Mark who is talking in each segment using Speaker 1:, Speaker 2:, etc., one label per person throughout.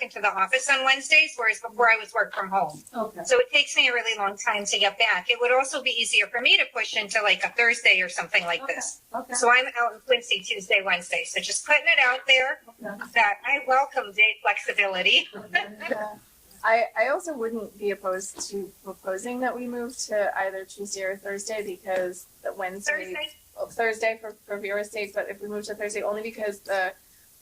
Speaker 1: into the office on Wednesdays, whereas before I was work from home.
Speaker 2: Okay.
Speaker 1: So it takes me a really long time to get back. It would also be easier for me to push into like a Thursday or something like
Speaker 2: Okay.
Speaker 1: this.
Speaker 2: Okay.
Speaker 1: So I'm out in Quincy Tuesday, Wednesday. So just putting it out there
Speaker 2: Okay.
Speaker 1: that I welcome day flexibility.
Speaker 3: I, I also wouldn't be opposed to proposing that we move to either Tuesday or Thursday because the Wednesday,
Speaker 1: Thursday,
Speaker 3: oh, Thursday for, for viewers' sake, but if we move to Thursday, only because the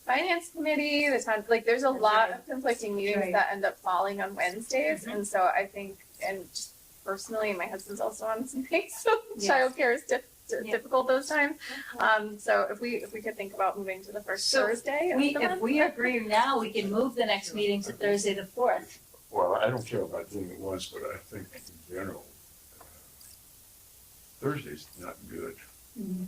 Speaker 3: finance committee, the town, like, there's a lot of conflicting meetings
Speaker 2: Right. Mm-hmm.
Speaker 3: that end up falling on Wednesdays, and so I think, and just personally, my husband's also on something, so
Speaker 2: Yes.
Speaker 3: childcare is diff- di-
Speaker 2: Yeah.
Speaker 3: difficult those times. Um, so if we, if we could think about moving to the first
Speaker 2: So
Speaker 3: Thursday of
Speaker 2: We,
Speaker 3: the
Speaker 2: if
Speaker 3: month.
Speaker 2: we agree now, we can move the next meeting to Thursday the fourth.
Speaker 4: Well, I don't care about doing it once, but I think in general, uh, Thursday's not good.
Speaker 1: Mm-hmm.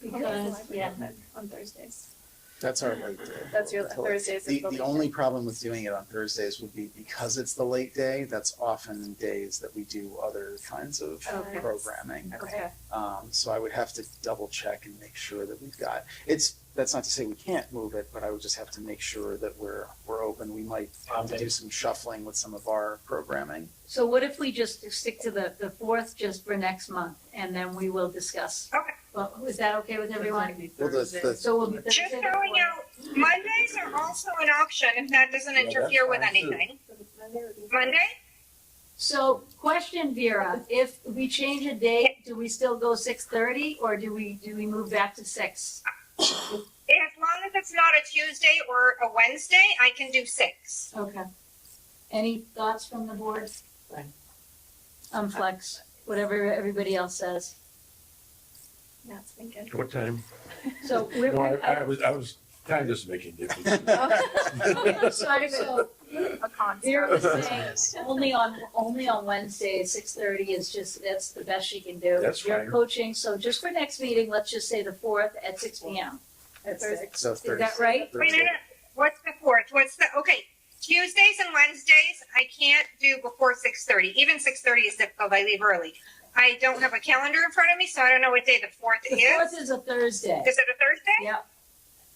Speaker 2: Because, yeah,
Speaker 3: On Thursdays.
Speaker 5: That's our late day.
Speaker 3: That's your
Speaker 5: Totally.
Speaker 3: Thursdays. is
Speaker 5: The,
Speaker 3: what we
Speaker 5: the
Speaker 3: do.
Speaker 5: only problem with doing it on Thursdays would be because it's the late day, that's often days that we do other kinds of
Speaker 3: Oh, Okay.
Speaker 5: programming.
Speaker 3: Okay.
Speaker 5: Um, so I would have to double check and make sure that we've got, it's, that's not to say we can't move it, but I would just have to make sure that we're, we're open. We might have to do some shuffling with some of our programming.
Speaker 2: so what if we just stick to the, the fourth just for next month and then we will discuss?
Speaker 1: Okay.
Speaker 2: Well, is that okay with everyone?
Speaker 5: Well, the, the,
Speaker 2: So we'll.
Speaker 1: just throwing out, Mondays are also an option if that doesn't
Speaker 4: Yeah, that's
Speaker 1: interfere with
Speaker 4: fine, too.
Speaker 1: anything.
Speaker 3: Monday would be-
Speaker 1: Monday?
Speaker 2: So question Vera, if we change a date, do we still go six thirty or do we, do we move back to six?
Speaker 1: As long as it's not a Tuesday or a Wednesday, I can do six.
Speaker 2: Okay. Any thoughts from the board? Um, flex, whatever everybody else says.
Speaker 3: Yeah, it's thinking.
Speaker 4: What time?
Speaker 2: So we're.
Speaker 4: No, I, I was, I was kind of just making difference.
Speaker 2: I'm Sorry, so
Speaker 3: A concert.
Speaker 2: Vera was saying, only on, only on Wednesday at six thirty is just, that's the best she can do.
Speaker 4: That's
Speaker 2: You're
Speaker 4: fine.
Speaker 2: coaching, so just for next meeting, let's just say the fourth at six P M.
Speaker 3: At Thursday.
Speaker 5: so
Speaker 2: Is
Speaker 5: Thursday.
Speaker 2: that right?
Speaker 1: Wait, no, no, what's the fourth? What's the, okay, Tuesdays and Wednesdays, I can't do before six thirty. Even six thirty is difficult, I leave early. I don't have a calendar in front of me, so I don't know what day the fourth
Speaker 2: The fourth
Speaker 1: is.
Speaker 2: is a Thursday.
Speaker 1: Is it a Thursday?
Speaker 2: Yep.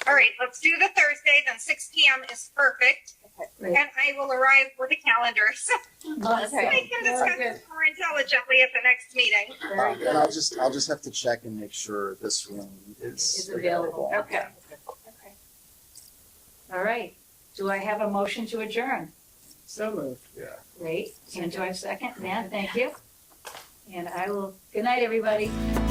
Speaker 1: All right, let's do the Thursday, then six P M is perfect.
Speaker 2: Great.
Speaker 1: And I will arrive with a calendar, so
Speaker 2: Awesome.
Speaker 1: we can discuss this more intelligently at the next meeting.
Speaker 2: Very
Speaker 5: Um,
Speaker 2: good.
Speaker 5: and I'll just, I'll just have to check and make sure this room
Speaker 2: Is
Speaker 5: is
Speaker 2: available.
Speaker 5: available.
Speaker 3: Okay. Okay.
Speaker 2: All right. Do I have a motion to adjourn?
Speaker 6: So moved.
Speaker 4: Yeah.
Speaker 2: Great. And do I have a second? Matt, thank you. And I will, good night, everybody.